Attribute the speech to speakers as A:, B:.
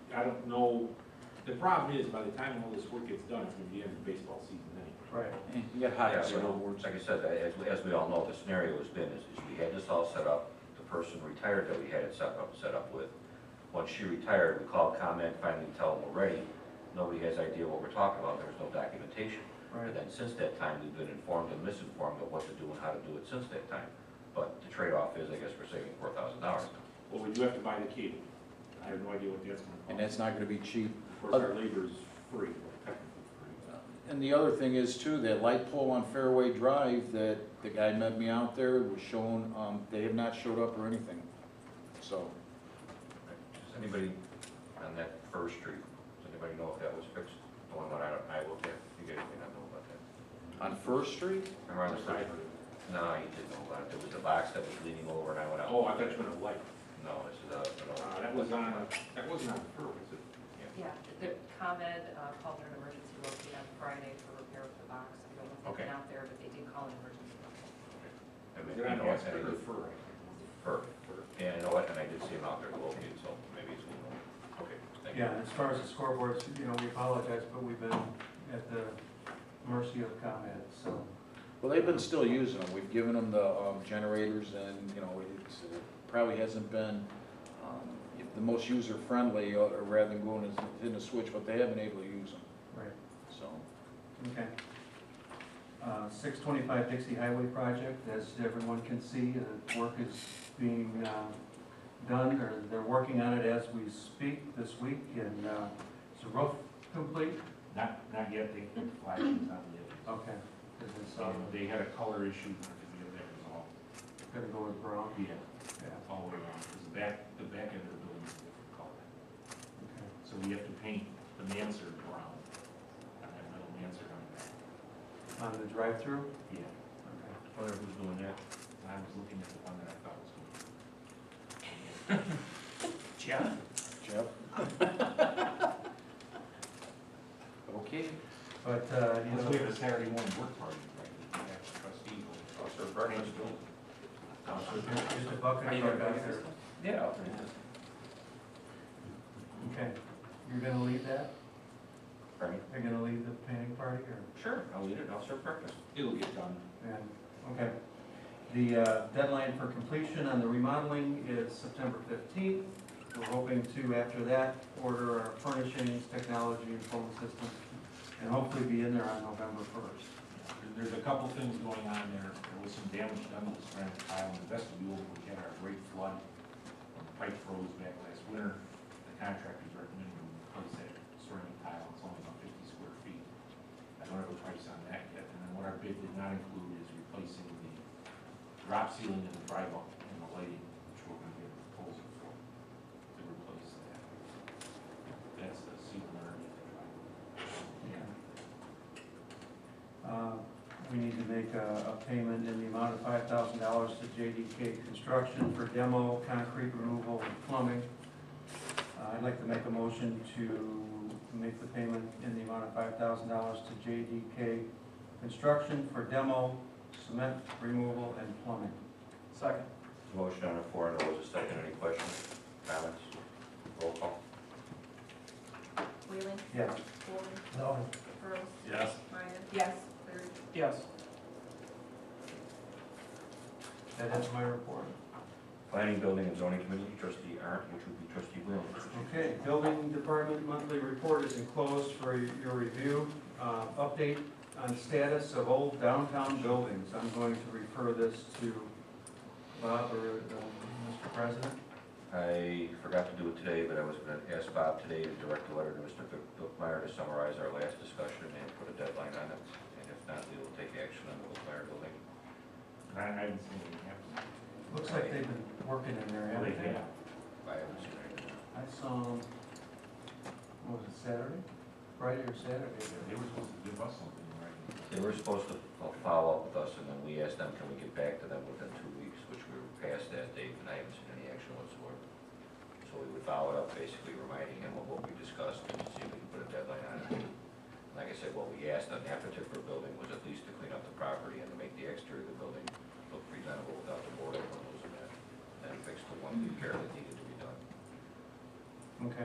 A: I don't know, the problem is, by the time all this work gets done, it's gonna be the end of baseball season anyway.
B: Right.
C: You got
D: Yeah,
C: hot, so
D: you
C: it
D: know,
C: works.
D: like I said, I- as, we- as we all know, the scenario has been, is, is we had this all set up, the person retired that we had it set up, set up with. Once she retired, we called comment, finally tell them we're ready, nobody has idea what we're talking about, there's no documentation. And
B: Right.
D: then since that time, we've been informed and misinformed of what to do and how to do it since that time. But the trade-off is, I guess, we're saving four thousand dollars.
A: Well, we do have to buy the cable. I have no idea what that's
C: And
A: gonna cost.
C: that's not gonna be cheap.
A: Of course, our labor is free, well, technically free.
C: And the other thing is too, that light pole on Fairway Drive that the guy met me out there was shown, um, they have not showed up or anything. So,
D: Does anybody on that first street, does anybody know if that was fixed? The one that I, I looked at, you guys may not know about that.
C: on First Street,
D: Remember on the
A: I
D: side?
A: heard it.
D: No, you didn't know about it. There was a box that was leaning over and I went out.
A: Oh, I thought you meant a light.
D: No, this is a.
A: Uh, that was on, that wasn't on fur, was it?
E: Yeah, the ComEd uh, called an emergency locate on Friday for repair of the box. I don't know if they've
D: Okay.
E: been out there, but they did call an emergency locate.
D: I mean,
A: Was
D: you
A: it on
D: know what,
A: Aspen
D: and
A: or
D: it-
A: fur?
D: fur.
A: Fur.
D: And you know what, and I did see him out there located, so maybe it's a little, okay, thank you.
B: Yeah, as far as the scoreboards, you know, we apologize, but we've been at the mercy of ComEd, so.
C: well, they've been still using them. We've given them the, um, generators and, you know, it's, it probably hasn't been, um, if the most user-friendly, uh, rather than going in- in the switch, but they haven't been able to use them,
B: Right,
C: so.
B: okay. Uh, 625 Dixie Highway Project, as everyone can see, uh, work is being uh, done, or they're working on it as we speak this week, and uh, is the roof complete?
A: Not, not yet, they put flashings on the
B: Okay. Is it,
A: edges.
B: uh,
A: Um, They had a color issue, not to get that resolved.
B: gonna go with brown?
A: Yeah,
B: Yeah,
A: all the way around, because the back, the back end of the building is a different color.
B: okay.
A: So we have to paint the mansard brown, on that metal mansard on the back.
B: On the drive-through?
A: Yeah,
B: Okay.
D: I wonder who's doing that?
A: and I was looking at the one that I thought was. Jeff?
C: Jeff? Okay.
B: But, uh, you
A: Unless we
B: know,
A: have a Saturday morning work party, right? We have a trustee.
D: Officer Burns is doing.
B: there's a bucket truck out there.
D: Yeah. I'll-
B: Okay, you're gonna leave that?
D: Pardon?
B: You're gonna leave the painting party, or,
D: Sure, I'll lead it, Officer Burns.
A: It'll get done.
B: and, okay. The uh, deadline for completion on the remodeling is September fifteenth. We're hoping to, after that, order our furnishings, technology, and phone systems, and hopefully be in there on November first.
A: There- There's a couple things going on there. There was some damage done to this granite tile in the vestibule. We had our great flood. when The pipe froze back last winter. The contractor's recommending we replace that ceramic tile. It's only about fifty square feet. I don't have a price on that yet. And then what our bid did not include is replacing the drop ceiling and the drywall and the lighting, which we're gonna get a proposal for to replace that. That's the ceiling underneath the drywall.
B: Uh, We need to make a, a payment in the amount of five thousand dollars to JDK Construction for demo, concrete removal, and plumbing. Uh, I'd like to make a motion to make the payment in the amount of five thousand dollars to JDK Construction for demo, cement removal, and plumbing. Second.
D: Motion on the floor, and there was a second, any questions, comments? Roll call.
F: Whalen,
B: Yes.
F: Coleman,
B: No.
F: Pearl,
A: Yes.
F: Meyer. Yes. Cleary.
B: Yes. That is my report.
D: Planning, Building, and Zoning Committee, trustee Arndt, which would be trustee Williams.
B: Okay, building department monthly report is enclosed for your review. Uh, Update on status of old downtown buildings. I'm going to refer this to Bob or uh, Mr. President.
D: I forgot to do it today, but I was gonna ask Bob today to direct a letter to Mr. Bookmeyer to summarize our last discussion and put a deadline on it. And if not, we will take action on the Bookmeyer building.
A: I I haven't seen anything happen.
B: Looks like they've been working in there, haven't they?
D: I haven't seen anything.
B: I saw, 'em, what was it, Saturday? Friday or Saturday?
A: They were supposed to give us something, right?
D: They were supposed to fo- follow up with us, and then we asked them, can we get back to them within two weeks, which we were past that date, and I haven't seen any action whatsoever. So we would follow it up, basically reminding him of what we discussed, and see if we can put a deadline on it. Like I said, what we asked on that particular building was at least to clean up the property and to make the exterior of the building look presentable without the board of windows and that. And fix the one repair that